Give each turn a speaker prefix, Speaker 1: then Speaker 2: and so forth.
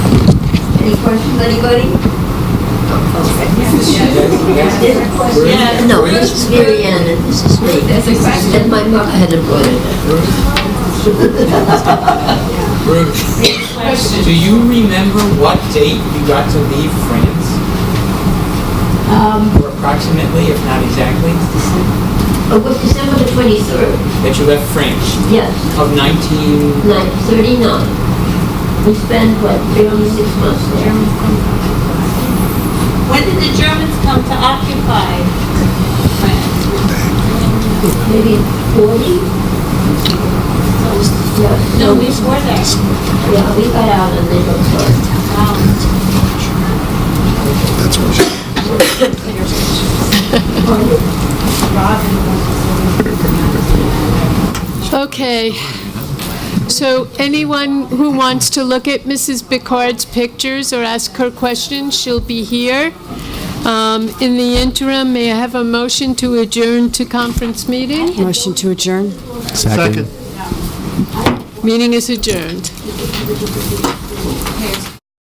Speaker 1: anybody?
Speaker 2: Yes.
Speaker 1: No, this is Mary Ann and this is me.
Speaker 2: That's exciting.
Speaker 1: And my mother had a brother.
Speaker 3: Ruth,
Speaker 2: Question.
Speaker 3: do you remember what date you got to leave France?
Speaker 4: Um,
Speaker 3: Or approximately, if not exactly,
Speaker 1: Oh, it was December the 23rd,
Speaker 3: that you left France
Speaker 1: yes,
Speaker 3: of 19...
Speaker 1: 9:39. We spent, what, barely six months there?
Speaker 2: When did the Germans come to occupy France?
Speaker 1: Maybe 40? Yeah.
Speaker 2: No, we were there.
Speaker 1: Yeah, we got out and they looked hard.
Speaker 2: Um,
Speaker 5: That's what she,
Speaker 6: Okay. So anyone who wants to look at Mrs. Bickard's pictures or ask her questions, she'll be here. Um, In the interim, may I have a motion to adjourn to conference meeting?
Speaker 4: motion to adjourn?
Speaker 6: Meeting is adjourned.